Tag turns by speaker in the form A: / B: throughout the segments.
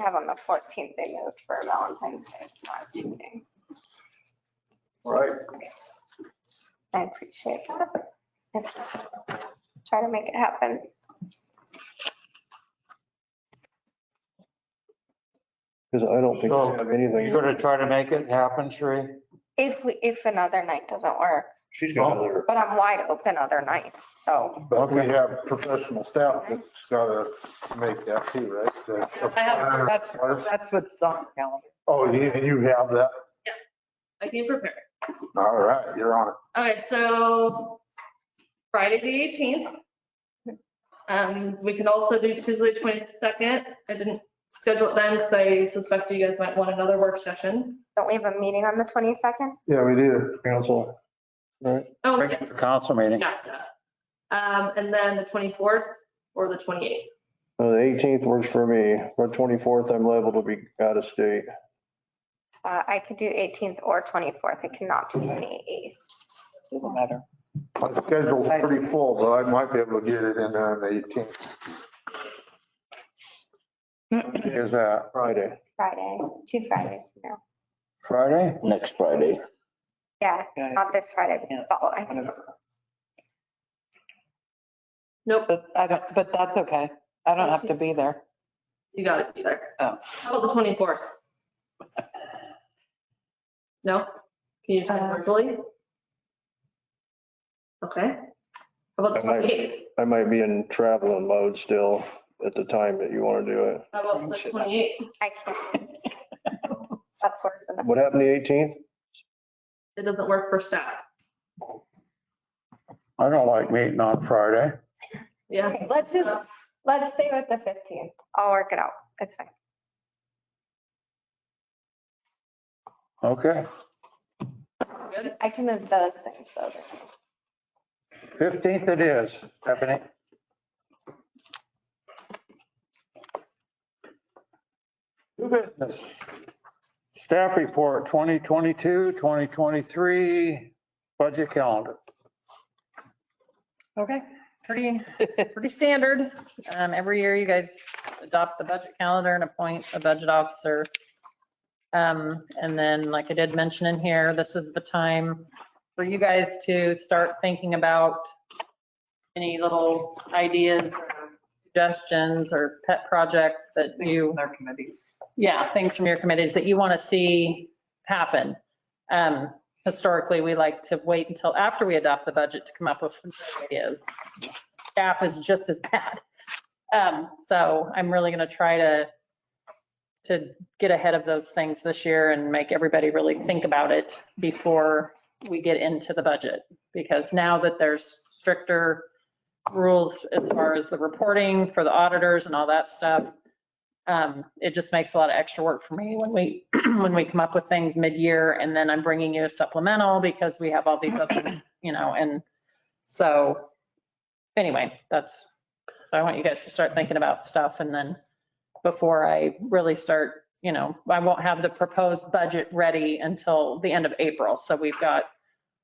A: have on the fourteenth, they moved for Valentine's Day, it's not cheating.
B: All right,
A: I appreciate that. It's- Try to make it happen.
C: Because I don't think
D: So-
C: we have anything.
D: You're gonna try to make it happen, Sheree?
A: If we, if another night doesn't work,
C: She's got another,
A: but I'm wide open other nights, so.
B: but we have professional staff that's gotta make that too, right? The-
E: I have, that's, that's what's on the calendar.
B: Oh, you, you have that?
E: I can prepare.
B: All right, you're on it.
E: Okay, so Friday, the 18th. Um, we can also do Tuesday, 22nd. I didn't schedule it then because I suspect you guys might want another work session.
A: Don't we have a meeting on the twenty-second?
B: Yeah, we do.
C: council.
E: Oh,
D: Bring it
E: yes,
D: to council meeting.
E: NAFTA. Um, and then the 24th or the 28th.
C: Uh, The 18th works for me. The 24th, I'm liable to be out of state.
A: Uh, I could do eighteenth or twenty-fourth, I cannot do twenty-eighth.
F: Doesn't matter.
B: My schedule's pretty full, but I might be able to get it in there on the 18th.
D: Is that
C: Friday.
A: Friday, two Fridays now.
D: Friday?
G: next Friday.
A: Yeah,
F: Okay.
A: not this Friday,
F: Yeah.
A: but following.
E: Nope,
F: But I don't, but that's okay. I don't have to be there.
E: you got it be there.
F: Oh.
E: How about the 24th? No? Can you time
F: Uh.
E: virtually? Okay. How about the
C: I might-
E: 28th?
C: I might be in traveling mode still at the time that you want to do it.
E: How about the 28th?
A: I can't. That's worse than.
C: What happened the 18th?
E: It doesn't work for staff.
D: I don't like meeting on Friday.
E: Yeah.
A: Okay, Let's do, let's stay with the fifteenth. I'll work it out. It's fine.
D: Okay,
E: Good.
A: I can move those things over.
D: 15th it is, Stephanie. New business. Staff report 2022, 2023 budget calendar.
H: Okay, pretty, pretty standard. Um, every year you guys adopt the budget calendar and appoint a budget officer. Um, and then, like I did mention in here, this is the time for you guys to start thinking about any little ideas, or suggestions, or pet projects that you
F: Their committees.
H: yeah, things from your committees that you want to see happen. Um, historically, we like to wait until after we adopt the budget to come up with some great ideas. Staff is just as bad. Um, so I'm really going to try to, to get ahead of those things this year and make everybody really think about it before we get into the budget. Because now that there's stricter rules as far as the reporting for the auditors and all that stuff, um, it just makes a lot of extra work for me when we, when we come up with things mid-year and then I'm bringing you a supplemental because we have all these other, you know, and so anyway, that's, so I want you guys to start thinking about stuff and then before I really start, you know, I won't have the proposed budget ready until the end of April. So we've got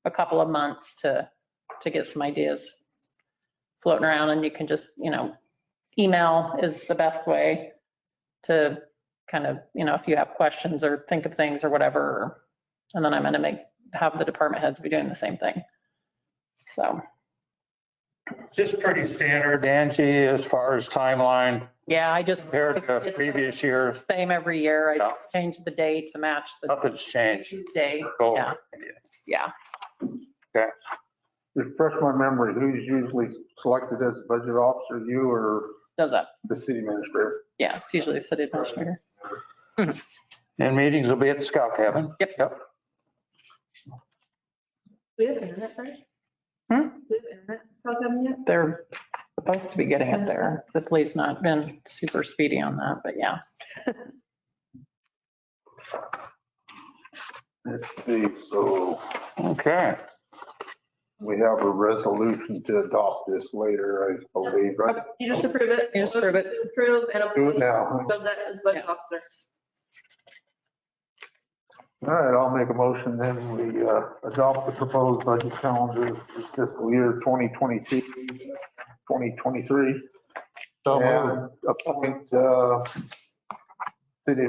H: a couple of months to, to get some ideas floating around and you can just, you know, email is the best way to kind of, you know, if you have questions or think of things or whatever. And then I'm going to make, have the department heads be doing the same thing. So,
D: Just pretty standard, Angie, as far as timeline
H: yeah, I just.
D: compared to previous years.
H: Same every year. I
D: Yeah.
H: just change the day to match the
D: Nothing's changed.
H: day.
D: Go.
H: Yeah, yeah.
B: Refresh my memory, who's usually selected as budget officer, you or
H: Does that,
B: the city administrator?
H: yeah, it's usually the city administrator.
D: And meetings will be at the Scout Cabin.
H: Yep.
D: Yep.
E: We have internet, right?
H: Hmm?
E: We have internet stuff coming yet?
F: They're supposed to be getting it there.
H: The police not been super speedy on that, but yeah.
B: Let's see, so
D: Okay.
B: we have a resolution to adopt this later, I believe, right?
E: You just approve it.
H: You just approve it.
E: Approve
B: Do
E: and
B: it
E: approve.
B: now.
E: Does that as budget officer.
B: All right, I'll make a motion then we uh, adopt the proposed budget calendar for fiscal year 2022, 2023.
D: So moved.
B: And appoint uh, city